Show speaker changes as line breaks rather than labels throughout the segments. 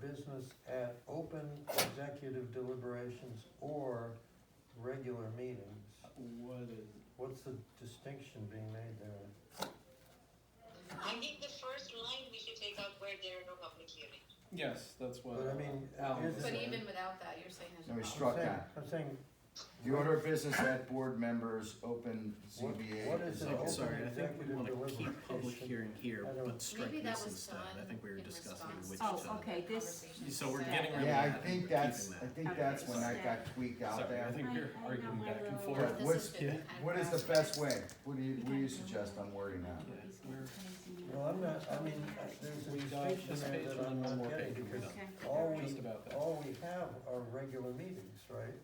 business at open executive deliberations or regular meetings.
What is,
What's the distinction being made there?
I think the first line we should take out where there are no public hearings.
yes, that's what.
But I mean,
Alan
here's
was
the-
But
saying.
even without that, you're saying there's.
Then we
a problem.
struck
I'm saying-
that.
I'm saying,
The order of business at board members, open
What-
ZBA.
what is
is
an
So,
open
open.
sorry, I think we
executive
wanna
deliberation?
keep public hearing here,
I don't-
but strike
Maybe that
this
was
instead, I
done
think we were
in
discussing
response
which.
to
Oh,
to-
uh,
okay, this-
conversation
So we're
today.
getting rid of
Yeah,
Yeah,
I think
we're
that's,
keeping
I
that.
think that's when I got tweaked out
Sorry, I
there.
think
I-
we're
I know
arguing
my
back and
little-
forth.
This
what's-
has been
yeah,
kind of
What is the
gradual.
best way? What do you, what do you suggest I'm wording
Yeah,
on?
we're-
Well, I'm not, I mean, there's a
We got
distinction
this page
there
and
that I'm
then one
not
more
getting
page and we're
because
done.
all
Just
we,
about that.
all we have are regular meetings, right?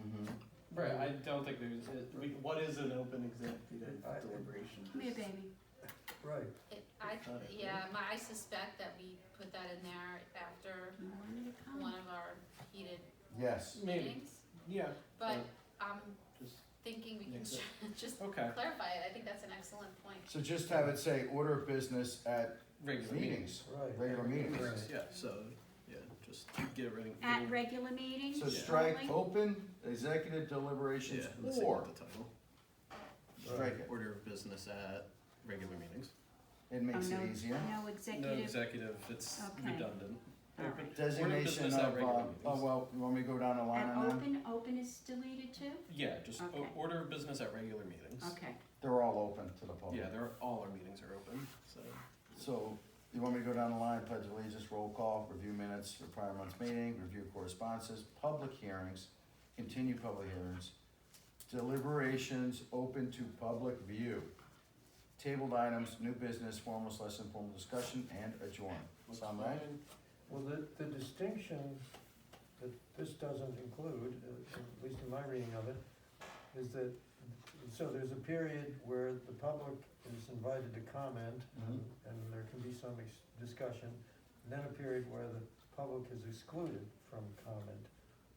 Mhm.
Right, I don't think there's, it- we- what is an open executive
I-
deliberation?
Come here, baby.
Right.
It- I, yeah, my, I suspect that we put that in there after
You wanted to
one
come.
of our heated
Yes,
Maybe,
meetings,
yeah,
but
Yeah.
I'm
just,
thinking we can
Makes
just
okay,
clarify it, I think that's an excellent point.
so just have it say order of business at
regular meetings.
meetings,
Right.
regular meetings.
Right.
Yeah, so, yeah, just get everything.
At regular meetings
So
only?
strike open executive deliberations
Yeah, let's see
or,
what the title,
strike it,
order of business at regular meetings.
it
Oh,
makes
no,
it easier.
no
No
executive,
executive, it's
Okay.
redundant.
all right.
Designation
business at
of, uh,
regular
oh,
meetings.
well, you want me to go down the line
And
on that?
open, open is deleted too?
Yeah, just o-
Okay.
order of business at regular meetings.
Okay,
They're all open to the public.
Yeah, they're, all our meetings are open, so.
So, you want me to go down the line, pledge allegiance, roll call, review minutes for prior month's meeting, review correspondences, public hearings, continue public hearings, deliberations open to public view, tabled items, new business, formal slash informal discussion, and adjourn. Sound right?
Well, the, the distinction that this doesn't include, uh, at least in my reading of it, is that, so there's a period where the public is invited to comment,
Mm-hmm.
and and there can be some ex- discussion, and then a period where the public is excluded from comment,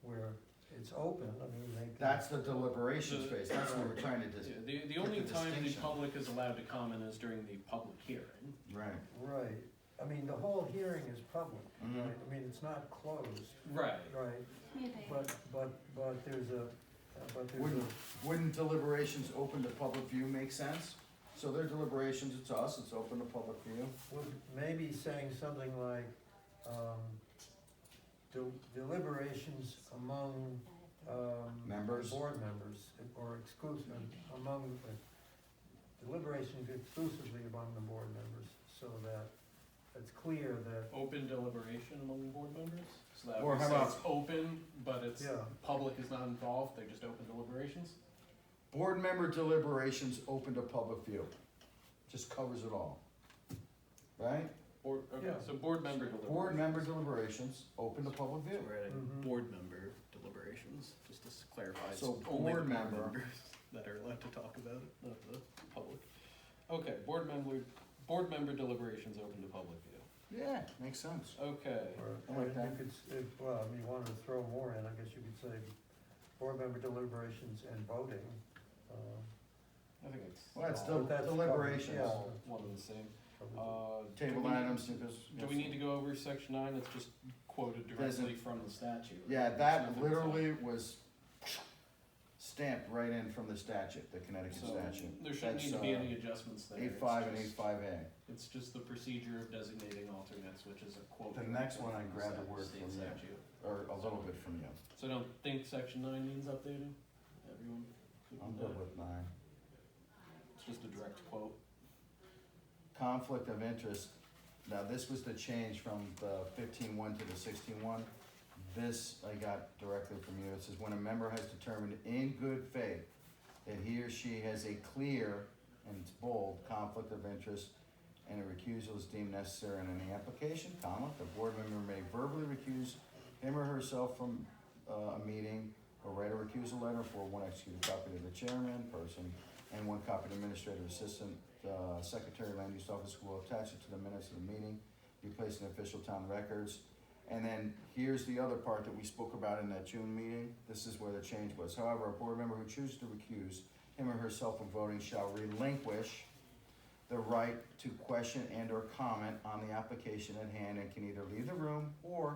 where it's open, I mean, they can.
That's the deliberation
The-
space, that's what we're trying to dis-
Yeah, The, the
Put
only
the
time the
distinction.
public is allowed to comment is during the public hearing.
right.
Right, I mean, the whole hearing is public,
Mhm.
right, I mean, it's not closed,
Right.
right,
come here, baby.
but, but, but there's a, but there's a.
Wouldn't, wouldn't deliberations open to public view make sense? So their deliberations, it's us, it's open to public view.
Well, maybe saying something like, um, del- deliberations among, um.
Members.
Board members, or exclusive, among, uh, deliberations exclusively among the board members, so that it's clear that,
Open deliberation among board members, so that
Or
we
how
say
about-
it's open, but it's,
yeah,
public is not involved, they're just open deliberations?
Board member deliberations open to public view. Just covers it all. Right?
Or, okay,
Yeah.
so board member deliberations.
Board member deliberations open to public view.
We're adding
Mhm.
board member deliberations, just to s- clarify, it's
So
only the board
board member-
members that are allowed to talk about it, not the public.
Okay, board member, board member deliberations open to public view.
Yeah, makes sense.
Okay,
or,
I like
and
that.
you could, s- if, well, if you wanted to throw more in, I guess you could say, board member deliberations and voting, uh.
I think it's
Well, that's
but
del-
that's probably-
deliberations.
yeah,
all one and the same.
probably-
Uh, do
Table
we-
items, new bus-
Do we need to go over section nine? It's just quoted directly
Doesn't-
from the statute.
Yeah,
There's
that
nothing
literally was stamped right in from the statute, the
to-
Connecticut
So,
statute.
there shouldn't
That's,
need to be
uh,
any adjustments there.
Eight
It's
five and eight
just-
five A.
It's just the procedure of designating alternates, which is a quote.
The
from
next one, I
state
grabbed a word
state
from you.
statute.
Or a little bit from you.
So I don't think section nine needs updating, everyone. good
I'm
with
good
that?
with nine.
It's just a direct quote.
conflict of interest, now this was the change from the fifteen one to the sixteen one. This I got directly from you, it says, when a member has determined in good faith that he or she has a clear, and it's bold, conflict of interest, and a recusal is deemed necessary in any application, comma, the board member may verbally recuse him or herself from, uh, a meeting, or write a recusal letter for one executed copy to the chairman, person, and one copy to administrative assistant, uh, secretary, land use office will attach it to the minutes of the meeting, be placed in official town records. And then here's the other part that we spoke about in that June meeting, this is where the change was, however, a board member who chooses to recuse him or herself from voting shall relinquish the right to question and or comment on the application at hand and can either leave the room or